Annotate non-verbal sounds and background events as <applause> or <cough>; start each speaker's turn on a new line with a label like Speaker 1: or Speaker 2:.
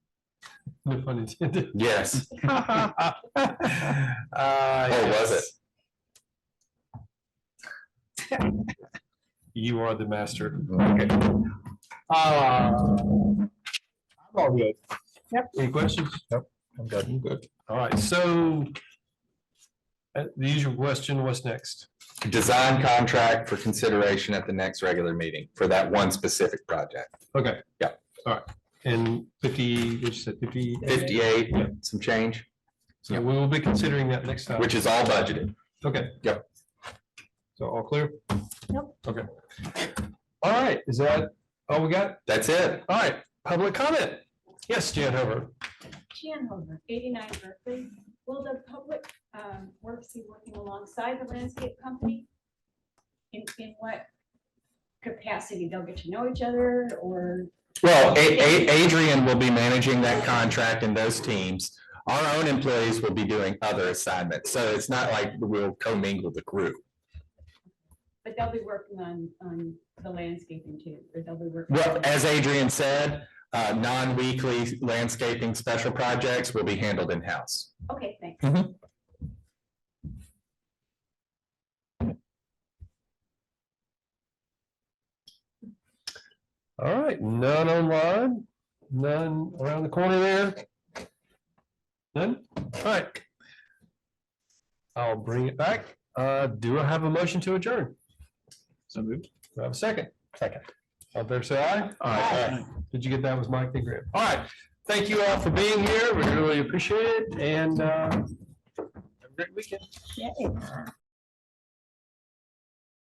Speaker 1: No <laughs> pun intended.
Speaker 2: Yes. Ah,
Speaker 1: Oh,
Speaker 2: was it?
Speaker 1: You are the master.
Speaker 2: Okay.
Speaker 1: Uh, I'm all good. Yep. Any questions?
Speaker 2: I'm good.
Speaker 1: good. All right, so uh, the usual question, what's next?
Speaker 2: Design contract for consideration at the next regular meeting for that one specific project.
Speaker 1: Okay.
Speaker 2: Yeah.
Speaker 1: All right, and fifty, what you said, fifty?
Speaker 2: Fifty-eight, some change,
Speaker 1: So we will be considering that next time.
Speaker 2: which is all budgeted.
Speaker 1: Okay.
Speaker 2: Yep.
Speaker 1: So all clear?
Speaker 3: Yep.
Speaker 1: Okay. All right, is that all we got?
Speaker 2: That's it.
Speaker 1: All right, public comment. Yes, Jan Hover.
Speaker 4: Hanover, eighty-nine Berkeley. Will the public um, works be working alongside the landscape company? In, in what capacity? They'll get to know each other or?
Speaker 2: Well, A- A- Adrian will be managing that contract and those teams. Our own employees will be doing other assignments, so it's not like we'll commingle the group.
Speaker 4: But they'll be working on, on the landscaping too, or they'll be working.
Speaker 2: Well, as Adrian said, uh, non-weekly landscaping special projects will be handled in-house.
Speaker 4: Okay, thanks.
Speaker 1: All right, none online, none around the corner there. None, all right. I'll bring it back. Uh, do I have a motion to adjourn? So moved. Do I have a second? Second. All fair say aye? Aye. Did you get that was Mike the Grip? All right, thank you all for being here. We really appreciate it and, uh, have a great weekend.
Speaker 4: Yeah.